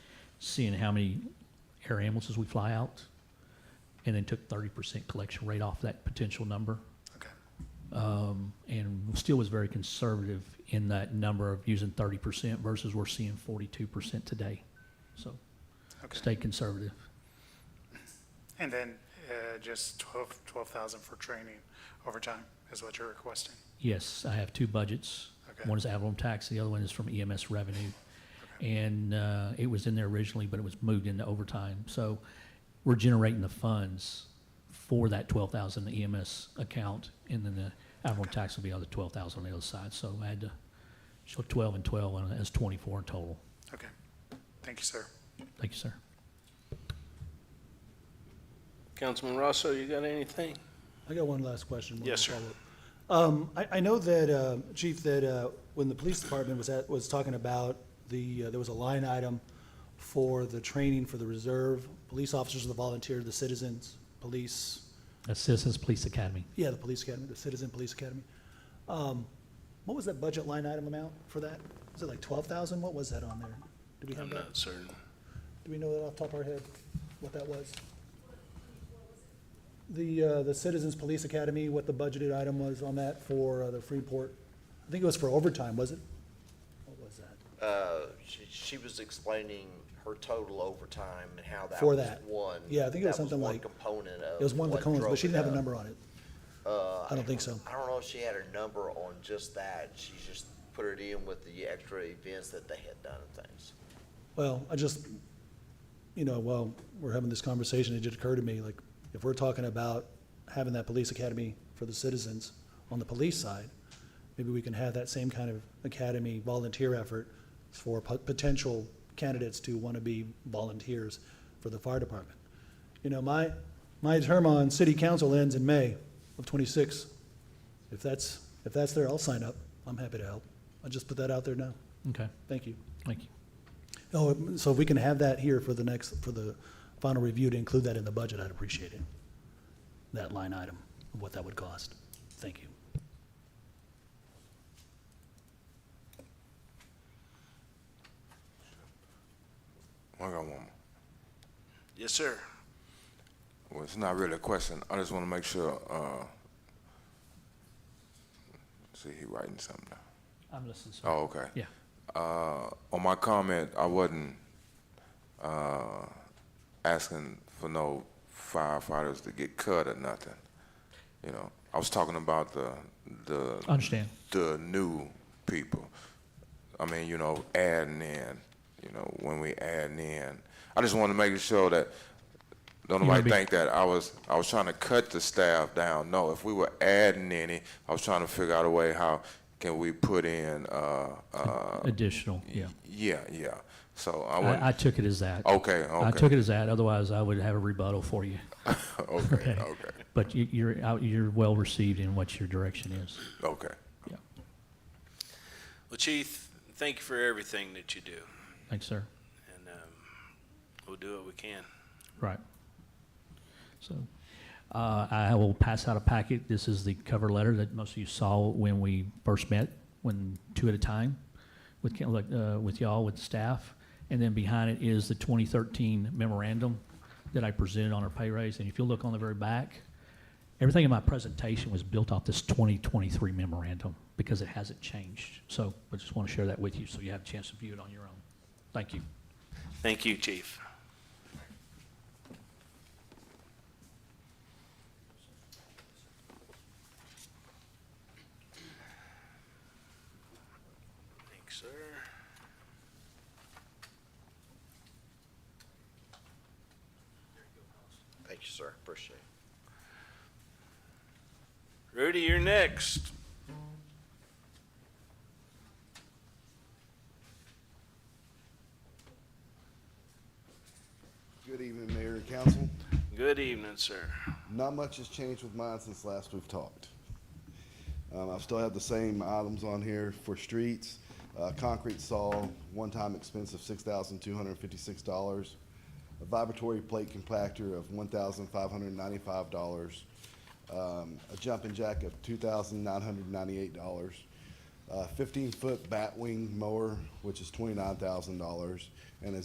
seeing how many air ambulances we fly out, and then took thirty percent collection rate off that potential number. Okay. Um, and still was very conservative in that number of using thirty percent versus we're seeing forty-two percent today. So Okay. stay conservative. And then uh, just 12 12,000 for training overtime is what you're requesting? Yes, I have two budgets. Okay. One is Avalon Tax, the other one is from EMS Revenue. And uh, it was in there originally, but it was moved into overtime. So we're generating the funds for that 12,000 EMS account, and then the Avalon Tax will be on the 12,000 on the other side. So I had to show 12 and 12, and that's 24 in total. Okay. Thank you, sir. Thank you, sir. Councilman Rosso, you got anything? I got one last question. one Yes, sir. follow-up. Um, I, I know that, uh, Chief, that, uh, when the police department was at, was talking about the, uh, there was a line item for the training for the reserve, police officers, the volunteer, the citizens, police, That's Citizens Police Academy. yeah, the police academy, the citizen police academy. Um, what was that budget line item amount for that? Was it like twelve thousand? What was that on there? Do we have I'm that? not certain. Do we know that off the top of our head, what that was? The, uh, the Citizens Police Academy, what the budgeted item was on that for uh, the Freeport? I think it was for overtime, was it? What was that? Uh, she, she was explaining her total overtime and how that For was that. one. Yeah, I think it was that something one like- Component of. It was one of the what cones, drove but she it didn't have up. a number on it. Uh, I don't think so. I don't know if she had her number on just that. She just put it in with the extra events that they had done and things. Well, I just, you know, while we're having this conversation, it just occurred to me, like, if we're talking about having that police academy for the citizens on the police side, maybe we can have that same kind of academy volunteer effort for po- potential candidates to want to be volunteers for the fire department. You know, my, my term on city council ends in May of twenty-six. If that's, if that's there, I'll sign up. I'm happy to help. I'll just put that out there now. Okay, Thank you. thank you. Oh, so if we can have that here for the next, for the final review to include that in the budget, I'd appreciate it. That line item, what that would cost. Thank you. I got one more. Yes, sir. Well, it's not really a question. I just want to make sure, uh, see, he writing something now. I'm listening, sir. Oh, okay. Yeah. Uh, on my comment, I wasn't, uh, asking for no firefighters to get cut or nothing. You know, I was talking about the, the. I understand. the new people. I mean, you know, adding in, you know, when we adding in. I just want to make sure that, don't You wanna nobody be- think that I was, I was trying to cut the staff down. No, if we were adding any, I was trying to figure out a way how can we put in, uh, uh, Additional, yeah. yeah, yeah. So I I, I wouldn't, took it as that. okay, I took okay, it as that, otherwise I would have a rebuttal for you. okay, okay, But you, you're out, you're well received in what your direction is. okay. Yeah. Well, Chief, thank you for everything that you do, Thanks, sir. and um, we'll do what we can. Right. So, uh, I will pass out a packet. This is the cover letter that most of you saw when we first met, when two at a time with, coun- like, uh, with y'all, with staff. And then behind it is the 2013 memorandum that I presented on our pay raise. And if you look on the very back, everything in my presentation was built off this 2023 memorandum because it hasn't changed. So I just want to share that with you so you have a chance to view it on your own. Thank you. Thank you, Chief. Thanks, sir. Thank you, sir. Appreciate it. Rudy, you're next. Good evening, Mayor and Council. Good evening, sir. Not much has changed with mine since last we've talked. Um, I still have the same items on here for streets, uh, concrete saw, one-time expense of six thousand two hundred and fifty-six dollars, a vibratory plate compactor of one thousand five hundred and ninety-five dollars, um, a jumping jack of two thousand nine hundred and ninety-eight dollars, a fifteen-foot batwing mower, which is twenty-nine thousand dollars, and a